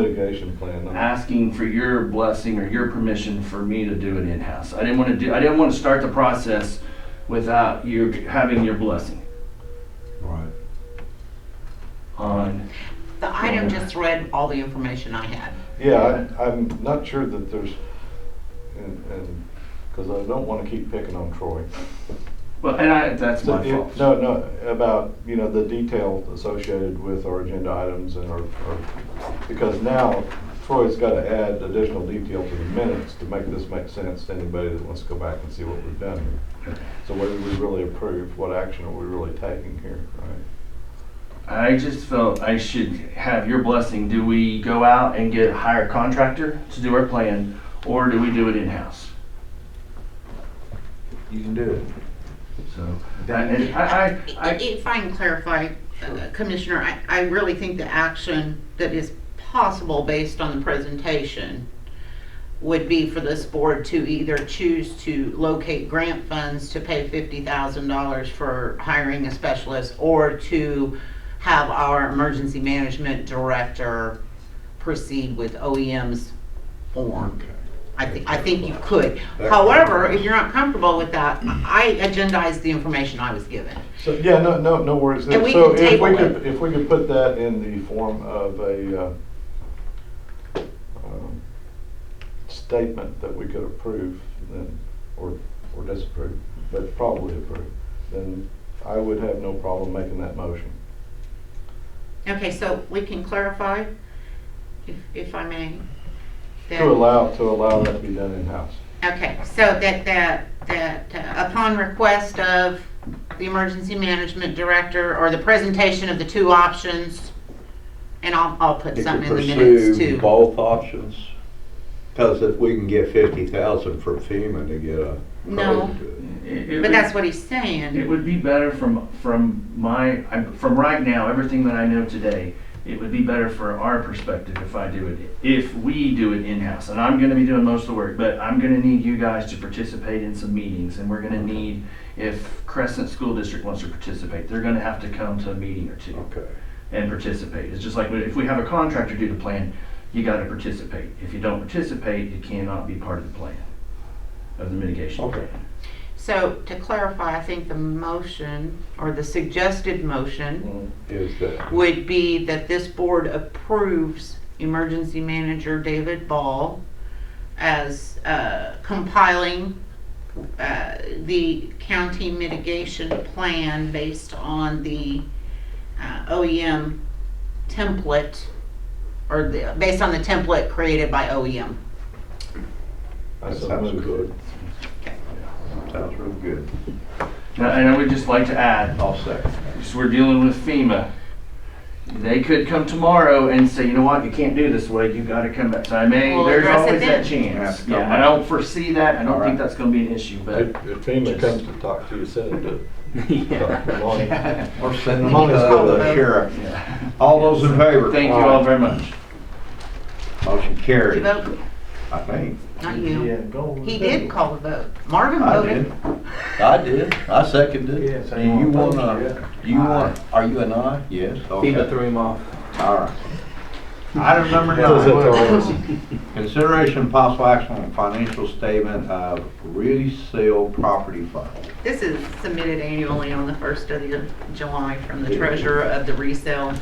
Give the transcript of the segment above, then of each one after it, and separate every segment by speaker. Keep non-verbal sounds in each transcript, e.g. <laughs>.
Speaker 1: mitigation plan.
Speaker 2: asking for your blessing or your permission for me to do it in-house. I didn't want to do, I didn't want to start the process without you having your blessing
Speaker 1: Right.
Speaker 2: on,
Speaker 3: The item just read all the information I had.
Speaker 1: Yeah, I, I'm not sure that there's, and, and, because I don't want to keep picking on Troy.
Speaker 2: well, and I, that's
Speaker 1: So
Speaker 2: my
Speaker 1: it-
Speaker 2: fault.
Speaker 1: No, no, about, you know, the detail associated with our agenda items and our, our- because now Troy's got to add additional detail to the minutes to make this make sense to anybody that wants to go back and see what we've done here. So what did we really approve? What action are we really taking here, right?
Speaker 2: I just felt I should have your blessing. Do we go out and get a higher contractor to do our plan, or do we do it in-house?
Speaker 4: You can do it.
Speaker 2: So, that- and I, I, I,
Speaker 3: If I can clarify, uh, Commissioner, I, I really think the action that is possible based on the presentation would be for this board to either choose to locate grant funds to pay fifty thousand dollars for hiring a specialist or to have our emergency management director proceed with OEM's form. I think, I think you could. However, if you're not comfortable with that, I agendized the information I was given.
Speaker 1: So, yeah, no, no, no worries.
Speaker 3: And we
Speaker 1: So
Speaker 3: can
Speaker 1: if
Speaker 3: table it.
Speaker 1: could- If we could put that in the form of a, uh, um, statement that we could approve, then, or, or disapprove, but probably approve, then I would have no problem making that motion.
Speaker 3: Okay, so we can clarify, if, if I may. that-
Speaker 1: To allow, to allow that to be done in-house.
Speaker 3: Okay, so that, that, that uh, upon request of the emergency management director or the presentation of the two options, and I'll, I'll put
Speaker 5: You could
Speaker 3: something in the minutes
Speaker 5: pursue
Speaker 3: too.
Speaker 5: both options, because if we can get fifty thousand from FEMA to get a.
Speaker 3: No.
Speaker 5: road to
Speaker 2: it- it
Speaker 3: But that's
Speaker 2: would-
Speaker 3: what he's saying.
Speaker 2: It would be better from, from my, I'm- from right now, everything that I know today, it would be better for our perspective if I do it, if we do it in-house. And I'm gonna be doing most of the work, but I'm gonna need you guys to participate in some meetings. And we're gonna need, if Crescent School District wants to participate, they're gonna have to come to a meeting or
Speaker 5: it.
Speaker 2: two
Speaker 5: Okay,
Speaker 2: and participate. It's just like, if we have a contractor do the plan, you gotta participate. If you don't participate, it cannot be part of the plan, of the mitigation plan.
Speaker 5: Okay.
Speaker 3: So to clarify, I think the motion, or the suggested motion,
Speaker 5: is that,
Speaker 3: would be that this board approves emergency manager David Ball as uh, compiling uh, the county mitigation plan based on the uh, OEM template, or the, based on the template created by E OEM.
Speaker 1: I
Speaker 5: that
Speaker 1: so
Speaker 5: sounds
Speaker 1: moved.
Speaker 5: good. Sounds real good.
Speaker 2: Now, And I would just like to add,
Speaker 5: I'll second.
Speaker 2: Because we're dealing with FEMA. They could come tomorrow and say, you know what, you can't do this way, you gotta come back. So I may,
Speaker 3: We'll
Speaker 2: there's
Speaker 3: address it
Speaker 2: always
Speaker 3: then.
Speaker 2: that
Speaker 5: Have to
Speaker 2: chance.
Speaker 5: come
Speaker 2: Yeah, I
Speaker 5: back.
Speaker 2: don't foresee that, I don't think
Speaker 5: Alright.
Speaker 2: that's gonna be an issue,
Speaker 1: If
Speaker 2: but.
Speaker 1: if FEMA comes to talk to you, send it
Speaker 4: <laughs>
Speaker 1: to.
Speaker 2: Yeah.
Speaker 5: Or send
Speaker 3: We
Speaker 5: them
Speaker 3: can
Speaker 5: to
Speaker 3: just call
Speaker 5: the
Speaker 3: them.
Speaker 5: sheriff. All those in
Speaker 2: <laughs>
Speaker 5: favor?
Speaker 2: Thank you all very much.
Speaker 5: Motion
Speaker 3: Did you
Speaker 5: carried, I
Speaker 3: vote?
Speaker 5: think.
Speaker 3: Not you.
Speaker 4: go.
Speaker 3: He did call the vote. Marvin
Speaker 5: I
Speaker 3: voted.
Speaker 5: did. I did, I seconded.
Speaker 4: Yes, I
Speaker 5: Do you
Speaker 4: want-
Speaker 5: wanna, you want, are you an aye? Yes, okay.
Speaker 4: FEMA threw him off.
Speaker 5: All right. Item number
Speaker 1: Does
Speaker 5: nine.
Speaker 1: it,
Speaker 4: <laughs>
Speaker 5: Consideration and possible action on financial statement of resale property fund.
Speaker 3: This is submitted annually on the first of the July from the treasurer of the resale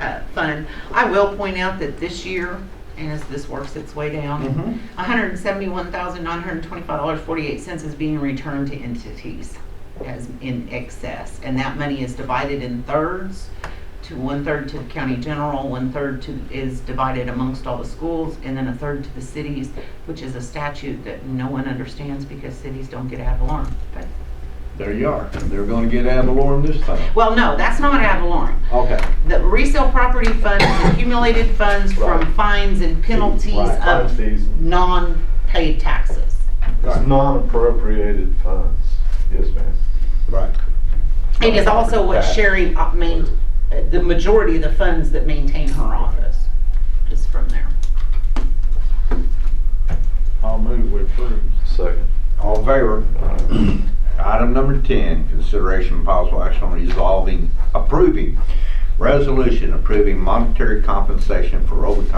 Speaker 3: uh, fund. I will point out that this year, and as this works its way
Speaker 5: Mm-hmm.
Speaker 3: down, $171,925.48 is being returned to entities as in excess. And that money is divided in thirds, to one-third to the county general, one-third to, is divided amongst all the schools, and then a third to the cities, which is a statute that no one understands because cities don't get ad valorem. But
Speaker 5: There you are. They're gonna get ad valorem this time.
Speaker 3: Well, no, that's not ad valorem.
Speaker 5: Okay.
Speaker 3: The resale property fund is accumulated funds from fines and penalties
Speaker 5: Right,
Speaker 3: of
Speaker 1: These
Speaker 3: non-paid taxes.
Speaker 1: It's non-appropriated funds. Yes, ma'am.
Speaker 5: Right.
Speaker 3: It is also what
Speaker 5: Right.
Speaker 3: Sherry uh, main, uh, the majority of the funds that maintain her office, just from there.
Speaker 4: I'll move, we approve.
Speaker 1: Second.
Speaker 5: All in favor? Item number ten, consideration and possible action on resolving, approving, resolution approving monetary compensation for overtime